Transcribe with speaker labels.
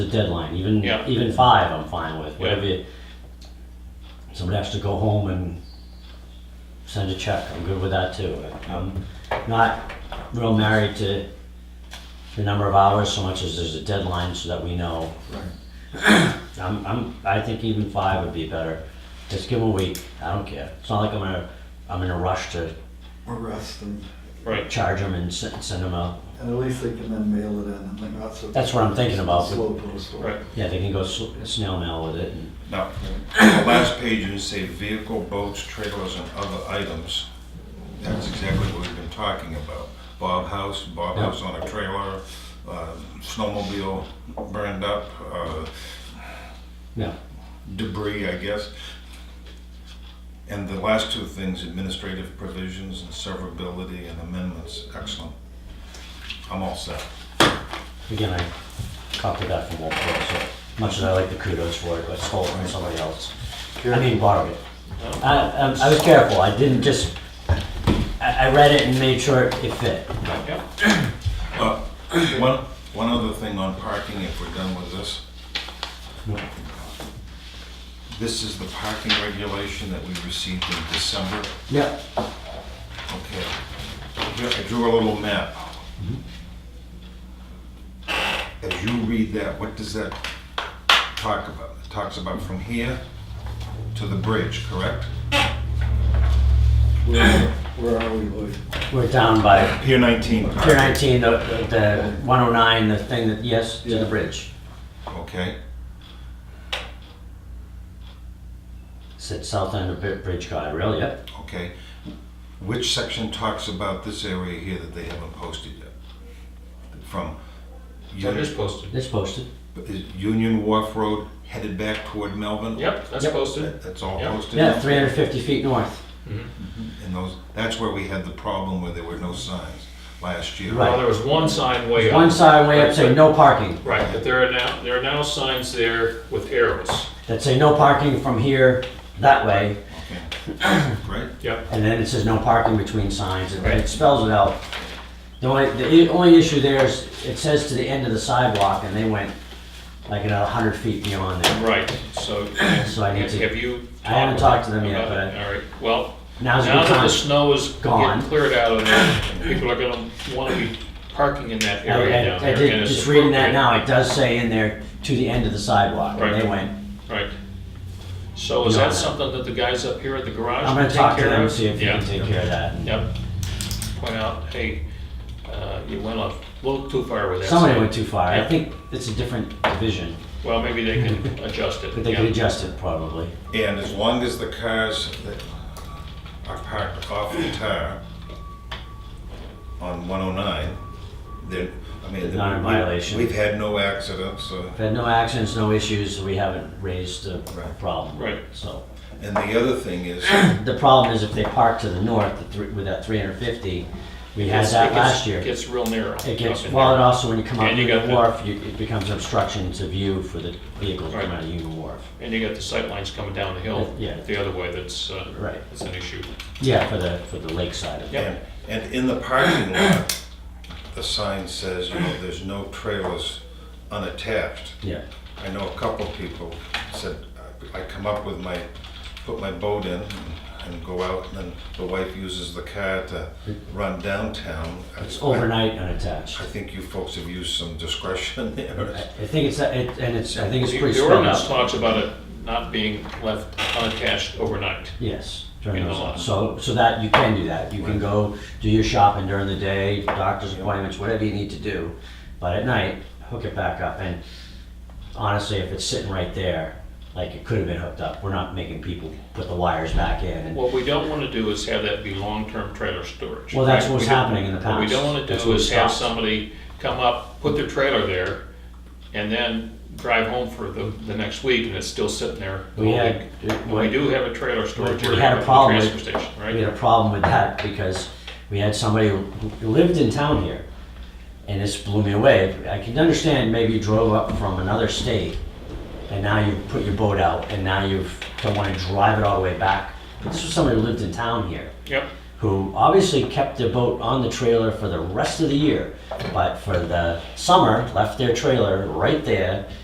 Speaker 1: the deadline, even,
Speaker 2: Yeah.
Speaker 1: even five, I'm fine with, whatever you, somebody has to go home and send a check, I'm good with that too. I'm not real married to the number of hours so much as there's a deadline so that we know. I'm, I'm, I think even five would be better, just give them a week, I don't care, it's not like I'm gonna, I'm in a rush to
Speaker 3: or rest and,
Speaker 2: Right,
Speaker 1: charge them and send, send them out.
Speaker 3: and at least they can then mail it in and like not so.
Speaker 1: That's what I'm thinking about.
Speaker 3: Slow postal.
Speaker 2: right.
Speaker 1: Yeah, they can go sl- snail mail with it and
Speaker 4: Now, the last pages say vehicle, boats, trailers, and other items. That's exactly what we've been talking about. Bob House, Bob
Speaker 1: Yeah.
Speaker 4: House on a trailer, uh, snowmobile burned up, uh,
Speaker 1: Yeah.
Speaker 4: debris, I guess. And the last two things, administrative provisions and severability and amendments, excellent. I'm all set.
Speaker 1: again, I copied that from Walt Pro, so much as I like the kudos for it, I stole it from somebody else. I mean, borrowed it.
Speaker 2: Oh.
Speaker 1: I, I, I was careful. I didn't just, I, I read it and made sure it fit.
Speaker 2: Yeah.
Speaker 4: Uh, One, one other thing on parking, if we're done with this. This is the parking regulation that we received in December.
Speaker 1: Yep.
Speaker 4: Okay. Here, I drew a little map. As you read that, what does that talk about? It talks about from here to the bridge, correct?
Speaker 3: Where, where are we, Lloyd?
Speaker 1: We're down by
Speaker 4: Pier 19
Speaker 1: Pier
Speaker 4: parking,
Speaker 1: 19, the, the 109, the thing that, yes, to the
Speaker 3: Yeah.
Speaker 1: bridge.
Speaker 4: okay?
Speaker 1: Sit south end of Bri- Bridge Guide Rail, yep.
Speaker 4: Okay. Which section talks about this area here that they haven't posted yet? From
Speaker 2: That is
Speaker 4: Union
Speaker 2: posted.
Speaker 1: It's posted.
Speaker 4: is Union Wharf Road headed back toward Melvin?
Speaker 2: Yep, that's
Speaker 1: Yep.
Speaker 2: posted.
Speaker 4: That- That's all
Speaker 2: Yep.
Speaker 4: posted?
Speaker 1: Yeah, 350 feet north.
Speaker 4: And those, that's where we had the problem where there were no signs last year.
Speaker 1: Right.
Speaker 2: Well, there was one sign way up.
Speaker 1: One side way up saying no parking.
Speaker 2: Right, but there are now, there are now signs there with arrows.
Speaker 1: that say no parking from here that way,
Speaker 4: Okay. Great,
Speaker 2: Yep,
Speaker 1: and then it says no parking between signs, and it
Speaker 2: Right.
Speaker 1: spells it out. The only, the i- only issue there is, it says to the end of the sidewalk, and they went like another hundred feet beyond there.
Speaker 2: right, so
Speaker 1: So I need
Speaker 2: have
Speaker 1: to-
Speaker 2: have you?
Speaker 1: I haven't talked to them yet,
Speaker 2: about it?
Speaker 1: but
Speaker 2: All right, well,
Speaker 1: Now's a
Speaker 2: now
Speaker 1: good
Speaker 2: that the
Speaker 1: time.
Speaker 2: snow is
Speaker 1: Gone.
Speaker 2: getting cleared out of there, people are gonna wanna be parking in that area down
Speaker 1: I- I- I
Speaker 2: there. and
Speaker 1: did,
Speaker 2: it's
Speaker 1: just reading that
Speaker 2: appropriate.
Speaker 1: now, it does say in there, to the end of the sidewalk, and they
Speaker 2: Right.
Speaker 1: went,
Speaker 2: Right. So is
Speaker 1: Yeah.
Speaker 2: that something that the guys up here at the garage
Speaker 1: I'm
Speaker 2: can
Speaker 1: gonna
Speaker 2: take
Speaker 1: talk to
Speaker 2: care
Speaker 1: them,
Speaker 2: of?
Speaker 1: see if you
Speaker 2: Yeah.
Speaker 1: can take care of that. and-
Speaker 2: Yep. Point out, hey, uh, you went a little too far with that.
Speaker 1: Somebody
Speaker 2: sign.
Speaker 1: went too far, I
Speaker 2: Yeah.
Speaker 1: think it's a different division,
Speaker 2: Well, maybe they can adjust it.
Speaker 1: but they
Speaker 2: yeah.
Speaker 1: could adjust it probably.
Speaker 4: and as long as the cars that are parked off the tar on 109, they're, I mean.
Speaker 1: They're not in
Speaker 4: we-
Speaker 1: violation.
Speaker 4: We've had no accidents, uh, so.
Speaker 1: We've had no accidents, no issues, so we haven't raised a
Speaker 4: Right.
Speaker 1: problem.
Speaker 2: Right.
Speaker 1: So,
Speaker 4: And the other thing is,
Speaker 1: the problem is if they park to the north, the three- with that three hundred fifty, we had
Speaker 2: It's-
Speaker 1: that
Speaker 2: it gets-
Speaker 1: last year.
Speaker 2: It gets real narrow.
Speaker 1: It
Speaker 2: up
Speaker 1: gets,
Speaker 2: in
Speaker 1: well,
Speaker 2: there.
Speaker 1: and also when you come out
Speaker 2: And you
Speaker 1: Union
Speaker 2: got the-
Speaker 1: Wharf, you- it becomes obstruction to view for the vehicles coming
Speaker 2: Right.
Speaker 1: out of Union Wharf.
Speaker 2: And you got the sight lines coming down the hill.
Speaker 1: Yeah.
Speaker 2: The other way, that's, uh,
Speaker 1: Right.
Speaker 2: that's an issue.
Speaker 1: Yeah, for the, for the lakeside. of it.
Speaker 2: Yep.
Speaker 4: and, and in the parking lot, the sign says, you know, there's no trailers unattached.
Speaker 1: Yeah,
Speaker 4: I know a couple people said, I I come up with my, put my boat in and go out, and then the wife uses the car to run downtown.
Speaker 1: it's
Speaker 4: I-
Speaker 1: overnight unattached.
Speaker 4: I think you folks have used some discretion
Speaker 1: I
Speaker 4: there.
Speaker 1: I think it's, that- it- and it's, I think it's
Speaker 2: The-
Speaker 1: pretty
Speaker 2: The
Speaker 1: spelled
Speaker 2: ordinance
Speaker 1: out.
Speaker 2: talks about it not being left unattached overnight.
Speaker 1: Yes, during
Speaker 2: In the
Speaker 1: those,
Speaker 2: lot.
Speaker 1: so, so that, you can do that. You can go do your shopping during the day, doctor's appointments, whatever you need to do. But at night, hook it back up. And honestly, if it's sitting right there, like it could have been hooked up, we're not making people put the wires back in. and-
Speaker 2: What we don't want to do is have that be long-term trailer storage.
Speaker 1: Well, that's
Speaker 2: right?
Speaker 1: what was
Speaker 2: We don't-
Speaker 1: happening in the
Speaker 2: What we
Speaker 1: past.
Speaker 2: don't want to
Speaker 1: That's
Speaker 2: do
Speaker 1: what
Speaker 2: is have
Speaker 1: stopped.
Speaker 2: somebody come up, put their trailer there, and then drive home for the, the next week, and it's still sitting there the
Speaker 1: We
Speaker 2: whole
Speaker 1: had-
Speaker 2: week. And we do have a trailer storage
Speaker 1: we
Speaker 2: area
Speaker 1: had a
Speaker 2: at the
Speaker 1: problem
Speaker 2: transfer
Speaker 1: with-
Speaker 2: station, right?
Speaker 1: We had a problem with that because we had somebody who lived in town here. And this blew me away. I can understand maybe you drove up from another state and now you put your boat out and now you don't want to drive it all the way back. But this was somebody who lived in town here
Speaker 2: Yep,
Speaker 1: who obviously kept their boat on the trailer for the rest of the year. But for the summer, left their trailer right there